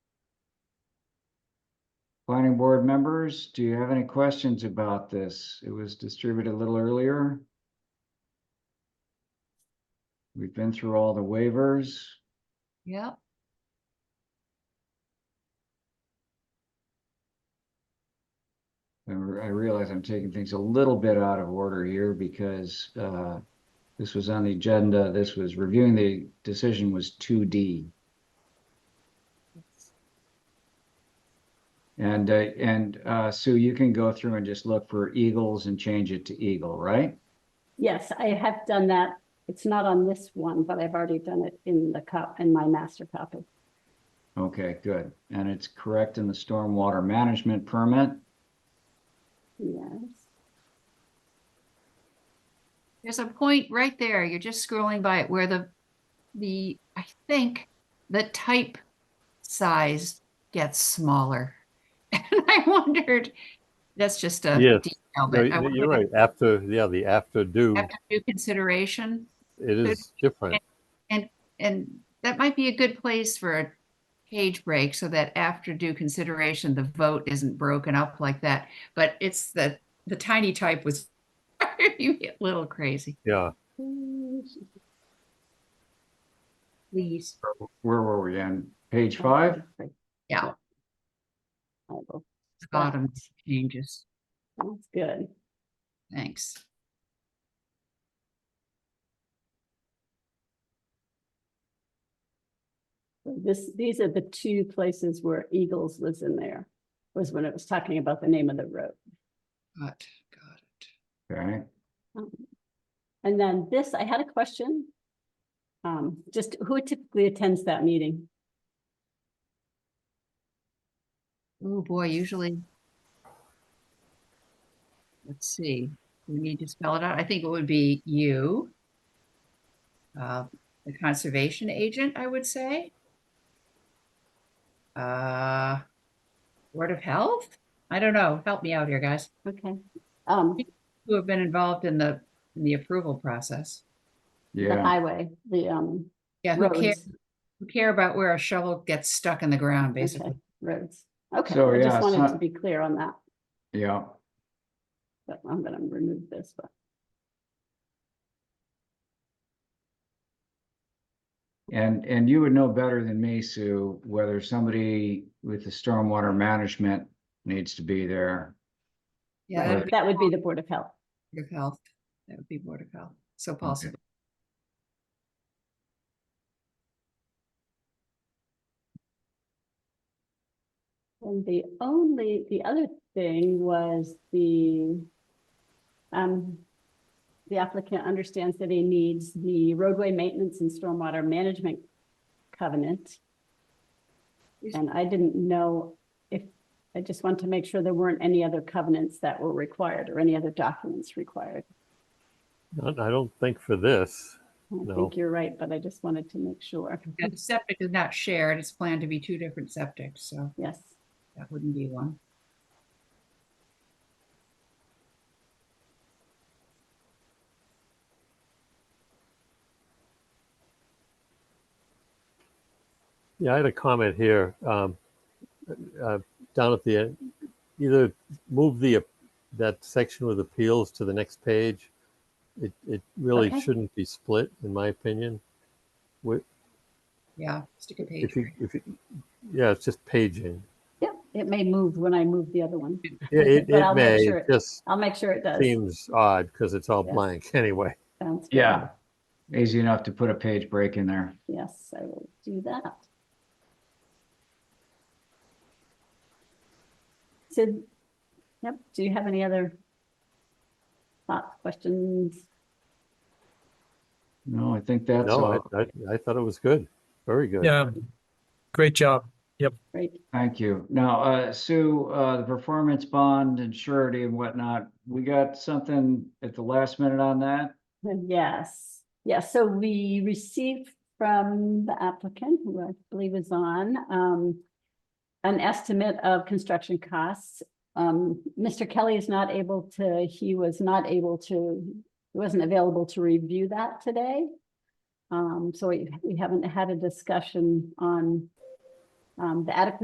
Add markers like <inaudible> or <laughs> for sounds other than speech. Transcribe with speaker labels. Speaker 1: Planning board members, do you have any questions about this? It was distributed a little earlier. We've been through all the waivers.
Speaker 2: Yep.
Speaker 1: I re- I realize I'm taking things a little bit out of order here because uh, this was on the agenda. This was reviewing the decision was 2D. And, uh, and uh, Sue, you can go through and just look for Eagles and change it to Eagle, right?
Speaker 3: Yes, I have done that. It's not on this one, but I've already done it in the cup, in my master copy.
Speaker 1: Okay, good. And it's correct in the stormwater management permit.
Speaker 3: Yes.
Speaker 2: There's a point right there. You're just scrolling by it where the, the, I think the type size gets smaller. <laughs> And I wondered, that's just a
Speaker 4: Yes.
Speaker 2: detail,
Speaker 4: No,
Speaker 2: but I
Speaker 4: y-
Speaker 2: wondered
Speaker 4: You're right. After, yeah, the after due,
Speaker 2: after due consideration.
Speaker 4: it is different.
Speaker 2: And that might be a good place for a page break so that after due consideration, the vote isn't broken up like that. But it's the, the tiny type was <laughs> a little crazy.
Speaker 4: Yeah.
Speaker 2: Please.
Speaker 1: Where were we on? Page five?
Speaker 2: Yeah,
Speaker 3: I will-
Speaker 2: bottom changes.
Speaker 3: That's good.
Speaker 2: Thanks.
Speaker 3: This, these are the two places where Eagles was in there, was when it was talking about the name of the road.
Speaker 2: Got, got it.
Speaker 1: Okay,
Speaker 3: Um, And then this, I had a question. Um, just who typically attends that meeting?
Speaker 2: Oh, boy, usually. Let's see, we need to spell it out. I think it would be you. Uh, the conservation agent, I would say. Uh, Board of Health? I don't know. Help me out here, guys,
Speaker 3: Okay. Um,
Speaker 2: who have been involved in the, in the approval process.
Speaker 3: the
Speaker 1: yeah,
Speaker 3: highway, the, um,
Speaker 2: Yeah, who care,
Speaker 3: roads,
Speaker 2: who care about where a shovel gets stuck in the ground, basically.
Speaker 3: okay, roads. Okay,
Speaker 1: So,
Speaker 3: I
Speaker 1: yeah,
Speaker 3: just
Speaker 1: it's
Speaker 3: wanted
Speaker 1: not-
Speaker 3: to be clear on that.
Speaker 1: yeah.
Speaker 3: but I'm gonna remove this, but
Speaker 1: And, and you would know better than me, Sue, whether somebody with the stormwater management needs to be there.
Speaker 2: Yeah,
Speaker 1: Right.
Speaker 2: that'd be
Speaker 3: that would be the Board of Health.
Speaker 2: Board of Health. That would be Board of Health. So possible.
Speaker 3: And the only, the other thing was the um, the applicant understands that he needs the roadway maintenance and stormwater management covenant.
Speaker 2: Is-
Speaker 3: And I didn't know if, I just want to make sure there weren't any other covenants that were required or any other documents required.
Speaker 4: I I don't think for this.
Speaker 3: I
Speaker 4: No.
Speaker 3: think you're right, but I just wanted to make sure.
Speaker 2: Yeah, the septic is not shared. It's planned to be two different septics, so
Speaker 3: Yes,
Speaker 2: that wouldn't be one.
Speaker 4: Yeah, I had a comment here. um, uh, Down at the, end. either move the, ap- that section with appeals to the next page. It, it really
Speaker 3: Okay.
Speaker 4: shouldn't be split, in my opinion. Wi-
Speaker 2: Yeah, stick a page.
Speaker 4: If you, if you, yeah, it's just paging.
Speaker 3: yep, it may move when I move the other one.
Speaker 4: Yeah, it,
Speaker 3: But I'll
Speaker 4: it
Speaker 3: make
Speaker 4: may,
Speaker 3: sure
Speaker 4: it
Speaker 3: it
Speaker 4: just
Speaker 3: I'll make sure it does.
Speaker 4: seems odd because it's all
Speaker 3: Yeah.
Speaker 4: blank <laughs> anyway.
Speaker 3: Sounds good.
Speaker 1: Yeah, easy enough to put a page break in there.
Speaker 3: Yes, I will do that. Sid, yep, do you have any other thoughts, questions?
Speaker 1: No, I think that's
Speaker 4: No,
Speaker 1: all.
Speaker 4: I, I, I thought it was good. Very good.
Speaker 5: Yeah, great job.
Speaker 3: Right,
Speaker 1: Thank you. Now, uh, Sue, uh, the performance bond and surety and whatnot, we got something at the last minute on that?
Speaker 3: <laughs> yes, yes, so we received from the applicant, who I believe is on, um, an estimate of construction costs. Um, Mr. Kelly is not able to, he was not able to, he wasn't available to review that today. Um, so we, we haven't had a discussion on um, the adequacy